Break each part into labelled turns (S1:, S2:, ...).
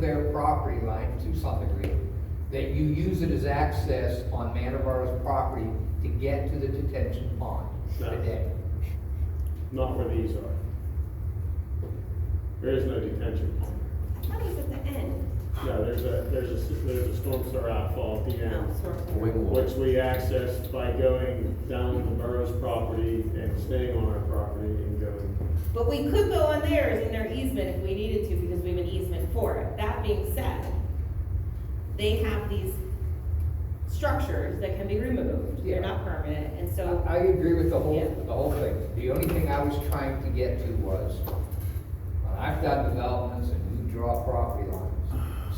S1: their property line to some degree, that you use it as access on Manavaro's property to get to the detention pond
S2: No.
S1: today.
S2: not where these are. There is no detention pond.
S3: Tony's at the end.
S2: No, there's a, there's a, there's a storm sewer outfall at the end,
S3: No, sort of.
S4: Wing wall.
S2: which we accessed by going down to the borough's property and staying on our property and going.
S3: But we could go on theirs in their easement if we needed to, because we have an easement for it. That being said, they have these structures that can be removed, they're not permanent, and so,
S1: I agree with the whole,
S3: Yeah.
S1: the whole thing. The only thing I was trying to get to was, when I've done developments and you draw property lines,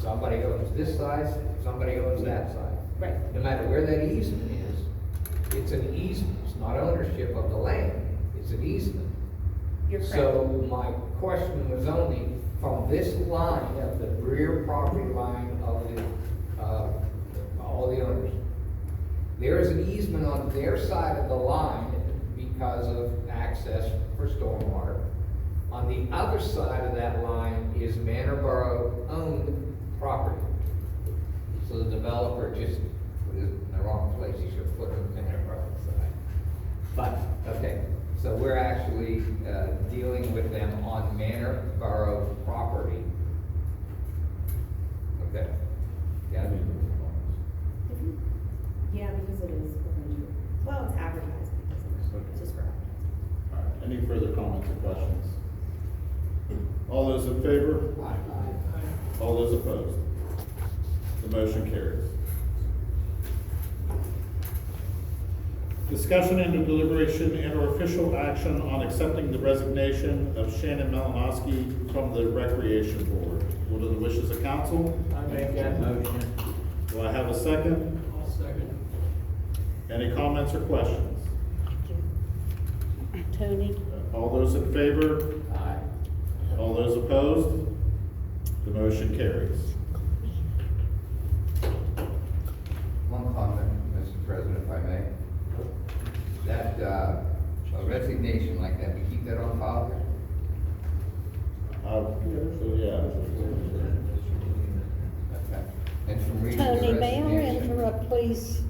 S1: somebody owns this size, somebody owns that side.
S3: right,
S1: No matter where that easement is, it's an easement, it's not ownership of the land, it's an easement.
S3: you're correct.
S1: So my question was only from this line of the rear property line of the, uh, all the owners. There is an easement on their side of the line because of access for stormwater. On the other side of that line is Manor owned property. So the developer just put it in the wrong place, he should have put it in Manor side. But, okay, so we're actually uh, dealing with them on Manor Borough property. Okay. Yeah.
S3: Yeah, because it is, well, it's advertised because of it, it's just for advertising.
S5: All right, Any further comments or questions? All those in favor? All those opposed? The motion carries. Discussion and deliberation and or official action on accepting the resignation of Shannon Malinowski from the Recreation Board. What are the wishes of council?
S6: I make that motion.
S5: Do I have a second?
S6: I'll second.
S5: Any comments or questions?
S7: Tony?
S5: All those in favor?
S6: Aye.
S5: All those opposed? The motion carries.
S4: One comment, Mr. President, if I may. That uh, a resignation like that, we keep that on file?
S5: Uh, so, yeah.
S4: Okay. And from reading the
S7: Tony, may I
S4: resignation-
S7: interrupt, please?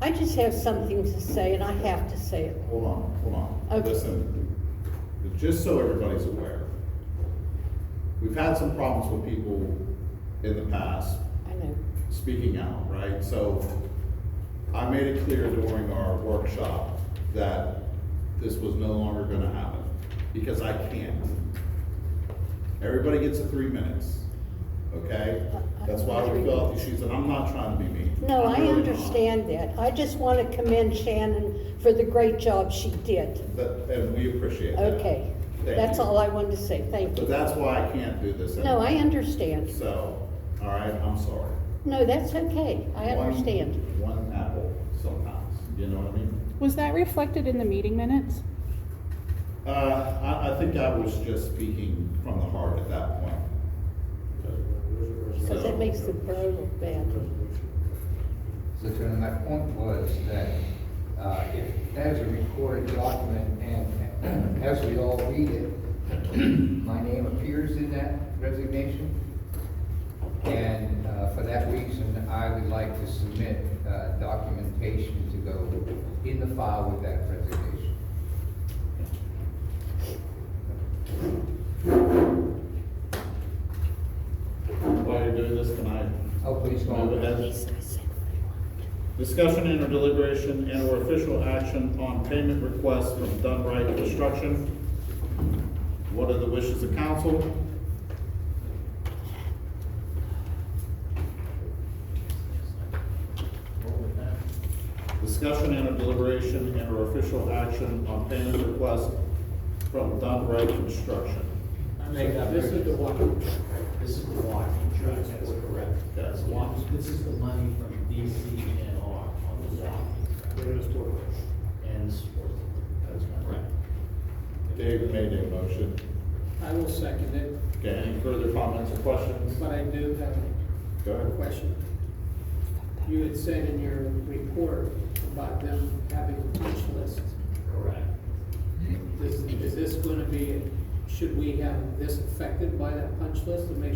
S7: I just have something to say, and I have to say it.
S5: Hold on, hold on.
S7: Okay.
S5: Listen, just so everybody's aware, we've had some problems with people in the past
S7: I know.
S5: speaking out, right? So I made it clear during our workshop that this was no longer gonna happen, because I can't. Everybody gets a three minutes, okay? That's why we fill out these sheets, and I'm not trying to be mean.
S7: Uh, No,
S5: I'm
S7: I
S5: really not.
S7: understand that. I just want to commend Shannon for the great job she did.
S5: That, and we appreciate that.
S7: Okay,
S5: Thank
S7: that's
S5: you.
S7: all I wanted to say, thank
S5: But
S7: you.
S5: that's why I can't do this.
S7: No, I
S5: anymore.
S7: understand.
S5: So, all right, I'm sorry.
S7: No, that's okay, I
S5: One-
S7: understand.
S5: One apple sometimes, you know what I mean?
S8: Was that reflected in the meeting minutes?
S5: Uh, I, I think I was just speaking from the heart at that point.
S7: Because that makes the borough look bad.
S1: So Tony, my point was that, uh, if, as a recorded document and as we all read it, my name appears in that resignation. And, uh, for that reason, I would like to submit, uh, documentation to go in the file with that resignation.
S5: While you're doing this, can I
S1: Oh, please go
S5: move
S1: on.
S5: ahead? Discussion and or deliberation and or official action on payment requests from Dunright Construction. What are the wishes of council? Discussion and or deliberation and or official action on payment request from Dunright Construction.
S6: I make that.
S2: This is the
S6: one, this is the one, insurance, that's correct.
S5: That's the
S6: one.
S5: one.
S6: This is the money from DCNR on the walk. And sport. That's correct.
S5: Dave made a motion.
S9: I will second it,
S5: Okay, any further comments or questions?
S9: but I do have
S5: Go
S9: a
S5: ahead.
S9: question. You had said in your report about them having a punch list.
S6: Correct.
S9: Is, is this gonna be, should we have this affected by that punch list to make